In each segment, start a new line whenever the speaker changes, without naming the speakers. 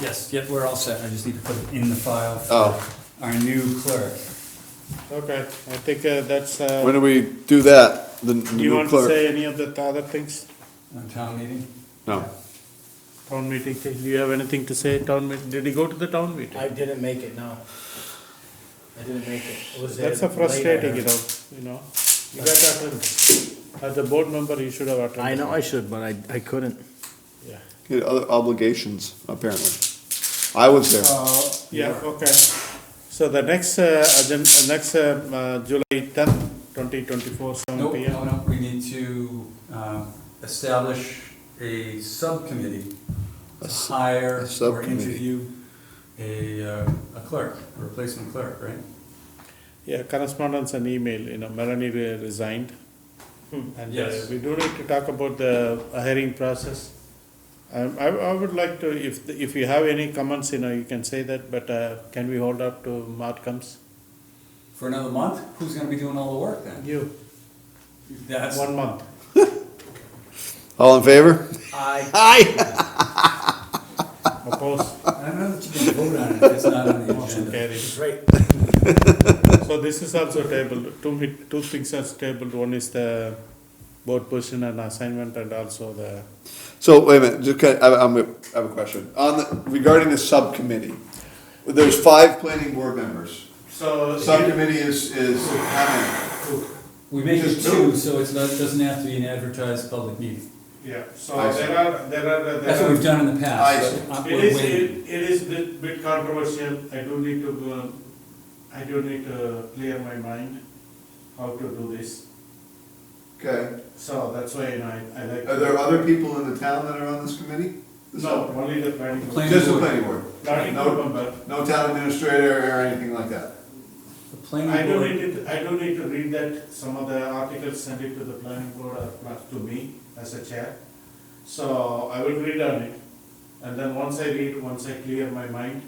Yes, yep, we're all set, I just need to put it in the file. for
Oh.
Our new clerk.
Okay, I think uh, that's, uh,
When do we do that? The
do you
new
want to
clerk?
say any of the other things?
On town meeting?
No.
Town meeting, thing? do you have anything to say, town meeting, did he go to the town meeting?
I didn't make it, no. I didn't make it. It was there
That's a
late, I
frustrating, you
heard.
know, you know, you got to attend. As a board member, you should have attended.
I know I should, but I, I couldn't.
Yeah.
He had other obligations, apparently. I was there.
Oh,
Uh, Yeah, okay. So the next, uh, agenda, next, um, uh, July tenth, twenty twenty-four, seven
Nope,
P
no,
M.
no, we need to um, establish a subcommittee
A
to
s-
hire
a
or
subcommittee.
interview a uh, a clerk, a replacement clerk, right?
Yeah, correspondence and email, you know, Melanie re- resigned. And uh,
Yes.
we do need to talk about the uh, hiring process. Um, I, I would like to, if, the- if you have any comments, you know, you can say that, but uh, can we hold up to Mark comes?
For another month, who's gonna be doing all the work then?
You,
That's,
one month.
All in favor?
I,
Aye.
Opposed,
I don't know that you can vote on it, if it's not on the
motion
agenda.
carries.
it's right.
So this is also tabled, two, mi- two things are tabled, one is the board position and assignment and also the,
So wait a minute, just, kind of- I, I'm, I have a question. On the, regarding the subcommittee, there's five planning board members.
so.
Subcommittee is, is how
We make it
Just do
two, so it's not, doesn't have to be an advertised public meeting.
Yeah, so
I see.
there are, there are, uh, there are.
That's what we've done in the
I
past.
see.
but, uh,
It
we're
is,
waiting.
it it is bit bit controversial, I do need to, uh, I do need to clear my mind how to do this,
many? Okay.
so that's why you know, I, I like.
Are there other people in the town that are on this committee?
No, only the planning board.
Planning
Just the
board.
planning board?
Planning board
No,
member,
no town administrator or anything like that?
The planning
I do
board-
need to, I do need to read that, some of the articles send it to the planning board or plus to me as a chair. So I will read on it, and then once I read, once I clear my mind,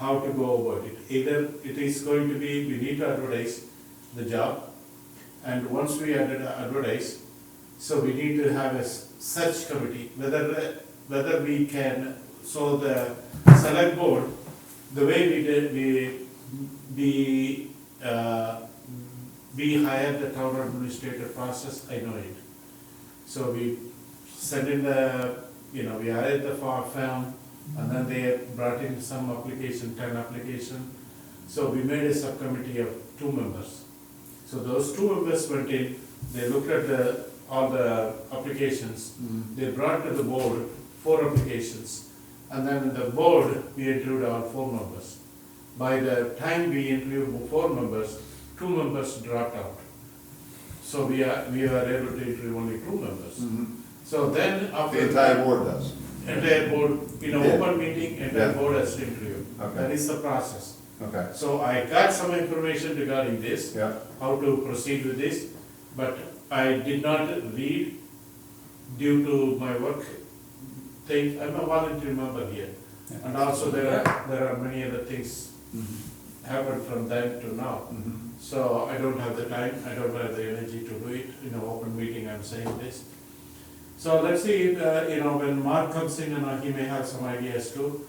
how to go about it. Either it is going to be, we need to advertise the job, and once we ad- advertise, so we need to have a s- search committee, whether, whether we can, so the select board, the way we did, we, we, uh, we hired the town administrator process, I know it. So we sent in the, you know, we hired the far firm, and then they brought in some application, ten application. So we made a subcommittee of two members. So those two members went in, they looked at the, all the applications, they brought to the board four applications. And then the board, we interviewed our four members. By the time we interviewed four members, two members dropped out. So we are, we are able to interview only two members.
Hmm.
So then after.
The entire board does?
Entire board, in an
Yeah.
open meeting, entire
Yeah.
board has to interview.
Okay.
That is the process.
Okay.
So I got some information regarding this,
Yeah.
how to proceed with this, but I did not read due to my work thing. I'm a volunteer member here.
Yeah.
And also uh, there are, there are many other things
Mm-hmm.
happened from then to now. So I don't have the time, I don't have the energy to do it, in an open meeting, I'm saying this. So let's see, uh, you know, when Mark comes in, you know, he may have some ideas too,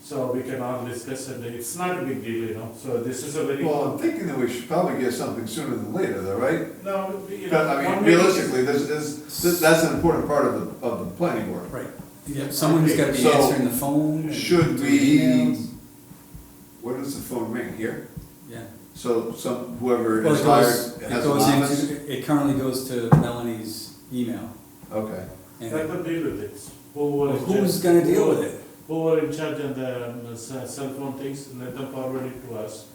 so we can all discuss it, it's not a big deal, you know, so this is a very.
Well, I'm thinking that we should probably get something sooner than later, though, right?
No, you know.
But, I
one
mean,
meeting-
realistically, this is, this- that's an important part of the, of the planning board.
Right, yeah, someone's gotta be
So,
answering the phone. and
Should
doing
we,
emails.
where does the phone ring, here?
Yeah.
So some, whoever
Well,
is
it goes,
hired
it
has an
goes
office?
into, it currently goes to Melanie's email.
Okay,
Let
And
them deal with it, who were. in
who's
charge-
gonna deal with it?
Who were in charge of the um, s- cell phone things, let them forward it to us.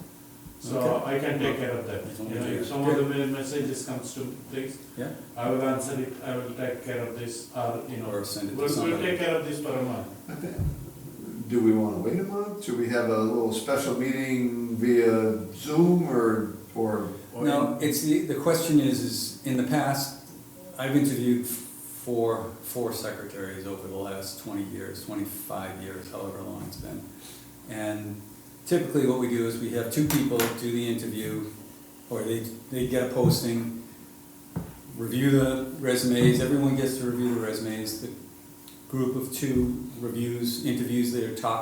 So
Okay.
I can take care of that,
It's
you
only
know,
you.
if some of the me- messages comes to things,
Yeah,
I will answer it, I will take care of this, or, you know,
Or send it to
we'll, we'll
somebody.
take care of this for a month.
I think, do we wanna wait a month? Should we have a little special meeting via Zoom or, or?
no, it's the, the question is, is in the past, I've interviewed four, four secretaries over the last twenty years, twenty-five years, however long it's been. And typically what we do is we have two people do the interview, or they, they get a posting, review the resumes, everyone gets to review the resumes, the group of two reviews, interviews their top